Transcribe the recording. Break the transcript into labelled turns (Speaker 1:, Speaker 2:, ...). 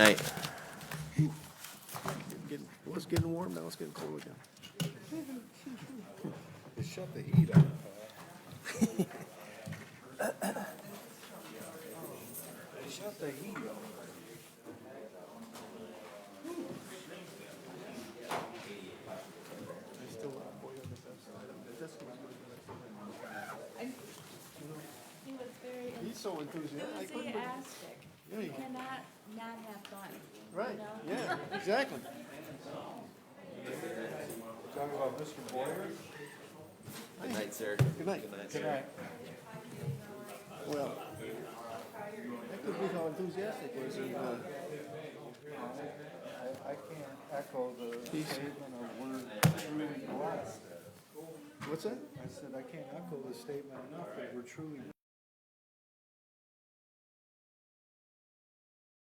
Speaker 1: Night.
Speaker 2: Getting- Well, it's getting warm now, it's getting cold again.
Speaker 3: Shut the heat on. Shut the heat on.
Speaker 4: He was very,
Speaker 3: He's so enthusiastic.
Speaker 4: enthusiastic. You cannot not have fun.
Speaker 3: Right, yeah, exactly. Talking about Mr. Boyer?
Speaker 1: Good night, sir.
Speaker 3: Good night.
Speaker 1: Good night,
Speaker 3: Good
Speaker 1: sir.
Speaker 3: night. Well, that could be how enthusiastic was in, uh. I, I can't echo the statement of word truly blessed.
Speaker 2: What's that?
Speaker 3: I said, I can't echo the statement enough that we're truly